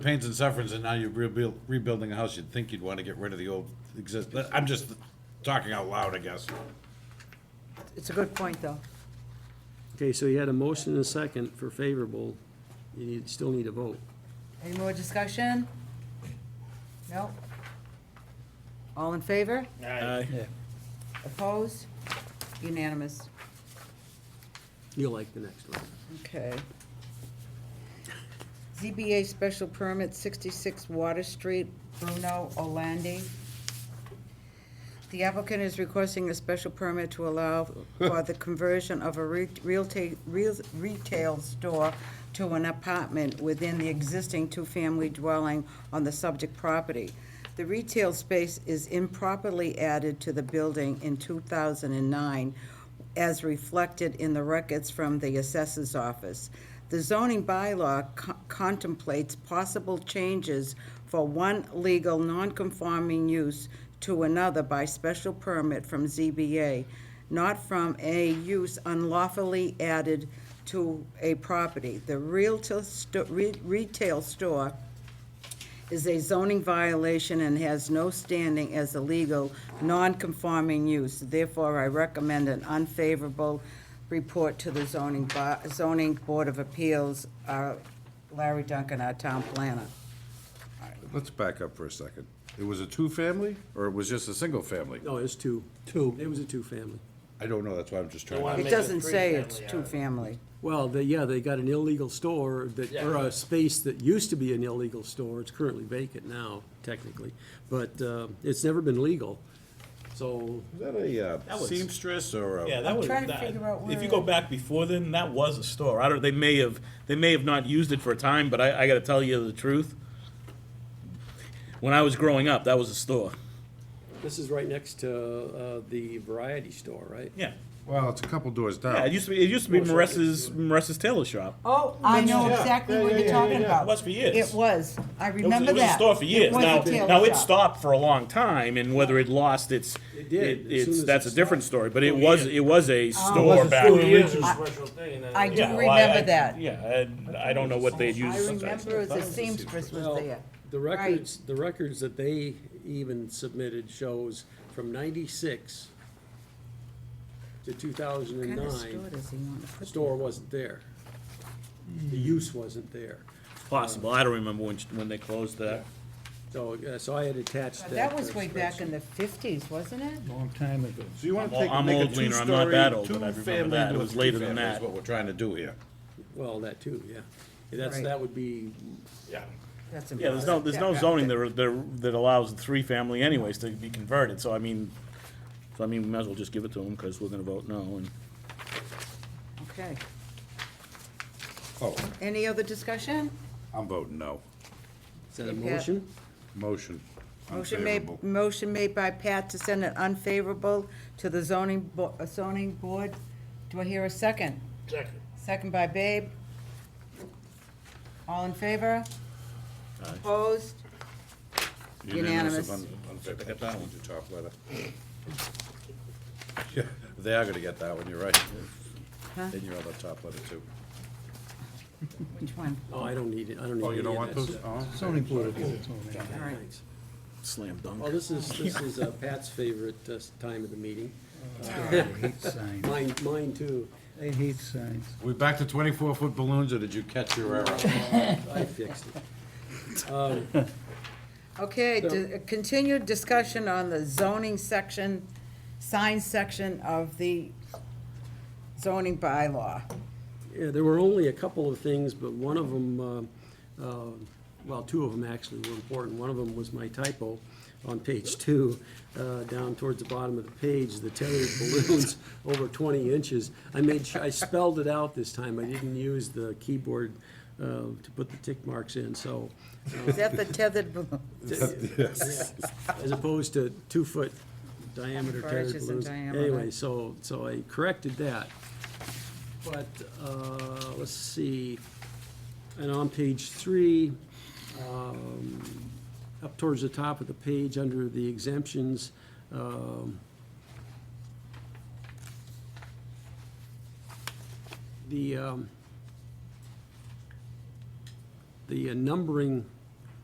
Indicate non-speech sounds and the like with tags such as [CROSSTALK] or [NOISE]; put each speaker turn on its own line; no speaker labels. pains and sufferings, and now you're rebuild, rebuilding a house, you'd think you'd want to get rid of the old exist, I'm just talking out loud, I guess.
It's a good point, though.
Okay, so you had a motion and a second for favorable. You need, still need a vote.
Any more discussion? No? All in favor? Opposed? Unanimous.
You'll like the next one.
Okay. ZBA special permit, 66 Water Street, Bruno Olandi. The applicant is requesting a special permit to allow for the conversion of a re- realta- real- retail store to an apartment within the existing two-family dwelling on the subject property. The retail space is improperly added to the building in 2009 as reflected in the records from the assessor's office. The zoning bylaw co- contemplates possible changes for one legal nonconforming use to another by special permit from ZBA, not from a use unlawfully added to a property. The realtor sto- re- retail store is a zoning violation and has no standing as a legal, non-conforming use. Therefore, I recommend an unfavorable report to the zoning, bo- zoning board of appeals, uh, Larry Duncan, our town planner.
Let's back up for a second. It was a two-family, or it was just a single-family?
No, Oh, it's two. Two. It was a two-family.
I don't know, that's why I'm just trying
They
to.
want-
It
Make it
doesn't say it's
three-family, uh,
two-family.
Well, they, yeah, they got an illegal store that, or
Yeah.
a space that used to be an illegal store. It's currently vacant now, technically, but, uh, it's never been legal. So,
Is that a uh,
was-
seamstress or a?
Yeah, that was.
trying to
that-
figure out
If
where-
you go back before then, that was a store. I don't, they may have, they may have not used it for a time, but I, I gotta tell you the truth. When I was growing up, that was a store.
this is right next to, uh, the variety store, right?
Yeah.
Well, it's a couple doors
Yeah, it
down.
used to be, it used to be Marissa's, Marissa's Tailor Shop.
Oh, I know exactly what you're talking
It was for years.
It was, I
It was-
remember that.
It was a store for years.
was a
Now,
tailor
now it
shop.
stopped for a long time, and whether it lost its,
It did, as
it-
soon
it's,
as
that's
it
a different story, but it was, it was a store
Or
back.
I do
Yeah, well,
remember
I-
that.
Yeah, and I don't know what
I
they'd use sometimes.
remember the seamstress was there.
The
Right.
records, the records that they even submitted shows from ninety-six to two thousand
What
and
kind of store
nine,
does he want to
the
put?
store wasn't there. The
Hmm.
use wasn't there.
Possible. I don't remember when, when they closed that.
So, uh, so I had attached that.
That was
uh,
way back
spreadsheet.
in the fifties, wasn't it?
Long time ago.
So you want to
Well,
take,
I'm
make a
old, Wiener, I'm
two-story,
not that old, but I remember
two-family
that. It
into a
was later than
two-family is
that.
what we're trying to do here.
Well, that too, yeah. That's,
Right.
that would be,
Yeah.
That's
Yeah, there's no,
impressive.
there's no zoning that, that that allows three family anyways to be converted, so I mean, so I mean, we might as well just give it to them, because we're gonna vote no, and
Okay.
Oh,
Any other discussion?
I'm voting no.
is that a
Yeah.
motion?
Motion.
Motion made,
unfavorable.
motion made by Pat to send it unfavorable to the zoning, bo- uh, zoning board. Do I hear a second? Second by Babe. All in favor? Opposed? Unanimous.
of un- unfavorable. Get that one, you top letter. Yeah, [LAUGHS] They are gonna get that one, you're right. Then you're on the top letter too.
Which one?
Oh, I don't need it, I don't need
Oh,
any
you don't
of
want
that
those?
stuff.
Oh, okay.
Zoning board of appeals,
All right.
Thanks.
slam
Well,
dunk.
this is, this is uh, Pat's favorite uh, time of the meeting.
I hate signs.
Mine, mine too.
I hate signs.
We back to twenty-four foot balloons, or did you catch your arrow?
I fixed it.
Okay, di- uh, continued discussion on the zoning section, sign section of the zoning bylaw.
Yeah, there were only a couple of things, but one of them, uh, uh, well, two of them actually were important. One of them was my typo on page two, uh, down towards the bottom of the page, the tethered balloons over 20 inches. I made, sure I spelled it out this time. I didn't use the keyboard uh, to put the tick marks in, so
Is that the tethered balloon?
as opposed to two-foot diameter
Four
tethered
inches in
balloons.
diameter.
Anyway, so, so I corrected that. But, uh, let's see, and on page three, um, up towards the top of the page, under the exemptions, um, the, um, the uh, numbering